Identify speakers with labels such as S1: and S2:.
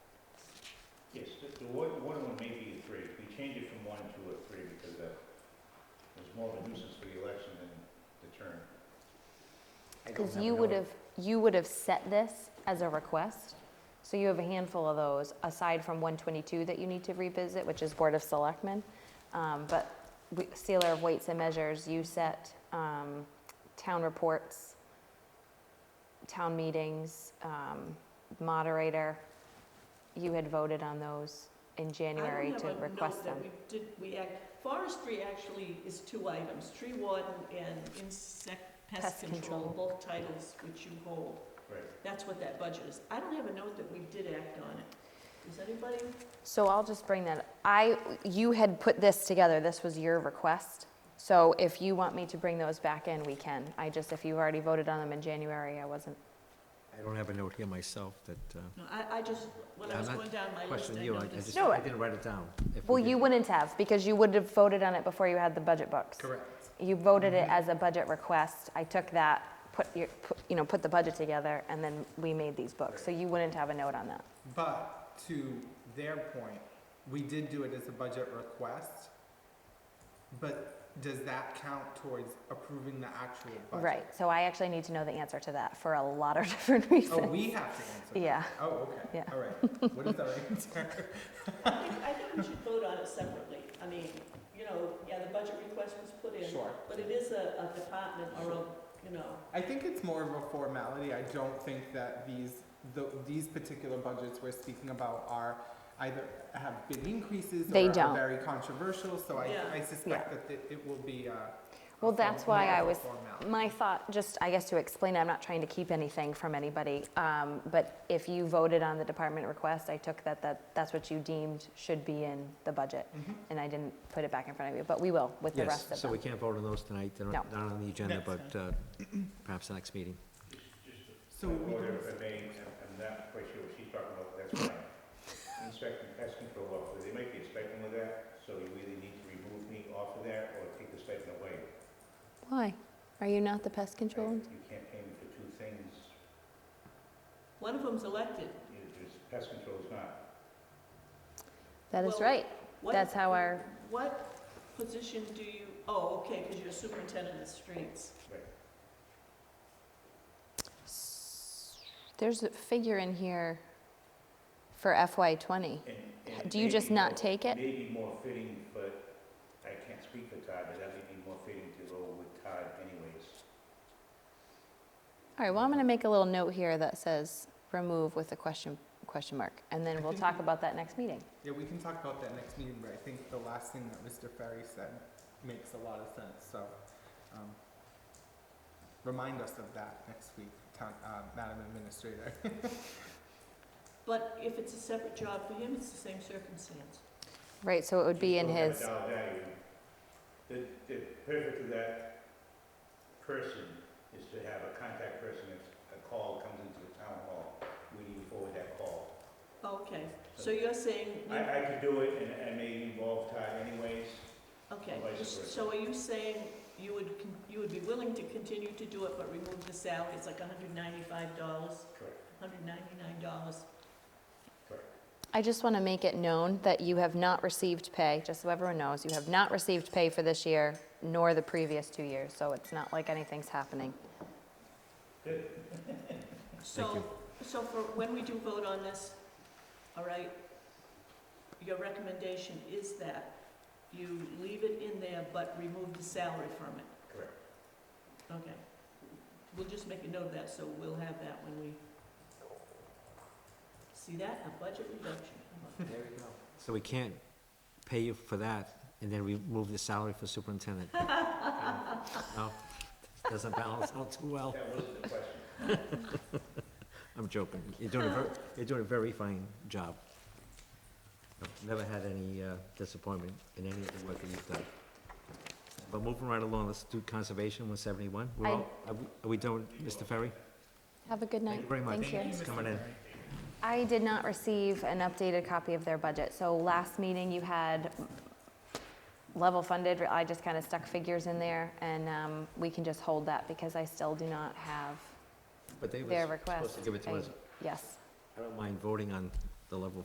S1: Yes, the- the one, one of them may be a three. We changed it from one to a three because that was more of a nuisance for the election than the term. I don't
S2: Because you
S1: no-
S2: would have, you would have set this as a request, so you have a handful of those, aside from 122 that you need to revisit, which is Board of Selectmen. Um, But we- sealer of weights and measures, you set um, town reports, town meetings, um, moderator. You had voted on those in January to request them.
S3: I don't have a note that we did, we act, forestry actually is two items, tree warden and insect
S2: Pest
S3: pest
S2: control.
S3: control, both titles which you hold.
S1: Right.
S3: That's what that budget is. I don't have a note that we did act on it. Does anybody?
S2: So I'll just bring that, I, you had put this together, this was your request. So if you want me to bring those back in, we can. I just, if you've already voted on them in January, I wasn't.
S4: I don't have a note here myself that, uh,
S3: No, I, I just, when I
S4: I'm
S3: was
S4: not
S3: going down my list,
S4: question
S3: I
S4: you, I I
S3: noticed.
S4: just,
S2: No,
S4: I
S2: I-
S4: didn't write it down. If we
S2: Well, you
S4: did-
S2: wouldn't have, because you would have voted on it before you had the budget books.
S4: Correct.
S2: You voted it as a budget request, I took that, put your, put- you know, put the budget together, and then we made these books. So you wouldn't have a note on that.
S5: But to their point, we did do it as a budget request, but does that count towards approving the actual budget?
S2: Right, so I actually need to know the answer to that for a lot of different reasons.
S5: Oh, we have to answer that?
S2: Yeah.
S5: Oh, okay.
S2: Yeah.
S5: All right. What is our answer?
S3: I think, I think we should vote on it separately. I mean, you know, yeah, the budget request was put in,
S5: Sure.
S3: but it is a, a department or a, you know,
S5: I think it's more of a formality. I don't think that these, the, these particular budgets we're speaking about are either have big increases
S2: They
S5: or
S2: don't.
S5: are very controversial, so I,
S3: Yeah.
S5: I suspect that it- it will be uh, a.
S2: Well,
S5: form-
S2: that's why
S5: more of
S2: I
S5: a
S2: was,
S5: formality.
S2: my thought, just, I guess to explain, I'm not trying to keep anything from anybody, um, but if you voted on the department request, I took that, that, that's what you deemed should be in the budget,
S5: Mhm.
S2: and I didn't put it back in front of you, but we will with the rest
S4: Mm-hmm. Yes,
S2: of
S4: so we
S2: them.
S4: can't vote on those tonight, they're
S2: No.
S4: not not on the agenda,
S5: That's
S4: but uh, perhaps the next meeting.
S5: So we
S1: Or
S5: can
S1: if I may, I'm- I'm not quite sure what she's talking about, but that's fine. Inspecting pest control officer, they might be expecting with that, so you either need to remove me off of that or take the stipend away.
S2: Why? Are you not the pest control?
S1: You can't pay me for two things,
S3: one of them's elected.
S1: You- there's, pest control is not.
S2: That is
S3: Well,
S2: right.
S3: What-
S2: That's how our-
S3: What position do you, oh, okay, because you're superintendent of streets.
S2: There's a figure in here for FY twenty.
S1: And- and
S2: Do you just
S1: maybe
S2: not
S1: more-
S2: take it?
S1: Maybe more fitting, but I can't speak for Todd, but that may be more fitting to go with Todd anyways.
S2: All right, well, I'm gonna make a little note here that says remove with a question, question mark, and then we'll talk about that next meeting.
S5: Yeah, we can talk about that next meeting, but I think the last thing that Mr. Ferry said makes a lot of sense, so, um, remind us of that next week, town, uh, Madam Administrator.
S3: But if it's a separate job for him, it's the same circumstance.
S2: Right, so it would be in
S1: Don't have a
S2: his.
S1: dollar value. The, the purpose of that person is to have a contact person if a call comes into the town hall, we need to forward that call.
S3: Okay, so you're saying, we-
S1: I, I could do it and I may involve Todd anyways,
S3: okay,
S1: Vice versa.
S3: so are you saying you would, con- you would be willing to continue to do it, but remove the salary, it's like hundred ninety-five dollars,
S1: correct,
S3: hundred ninety-nine dollars?
S1: correct.
S2: I just want to make it known that you have not received pay, just so everyone knows, you have not received pay for this year, nor the previous two years, so it's not like anything's happening.
S3: So,
S4: you.
S3: so for, when we do vote on this, all right, your recommendation is that you leave it in there, but remove the salary from it?
S1: Correct.
S3: Okay. We'll just make a note of that, so we'll have that when we see that, a budget reduction.
S4: There we go. So we can't pay you for that, and then remove the salary for superintendent. No, doesn't balance out too well.
S1: That wasn't the question.
S4: I'm joking. You're doing a very, you're doing a very fine job. Never had any uh, disappointment in any of the work that you've done. But moving right along, let's do conservation, one seventy-one. We're
S2: I-
S4: all, are we- are we done, Mr. Ferry?
S2: Have a good night.
S4: Thank you very much.
S2: Thank you.
S4: Thanks for coming in.
S2: I did not receive an updated copy of their budget, so last meeting you had level funded, I just kind of stuck figures in there, and um, we can just hold that, because I still do not have
S4: But they were
S2: their
S4: supposed
S2: request.
S4: to give it to
S2: I-
S4: us.
S2: Yes,
S4: I don't mind voting on the level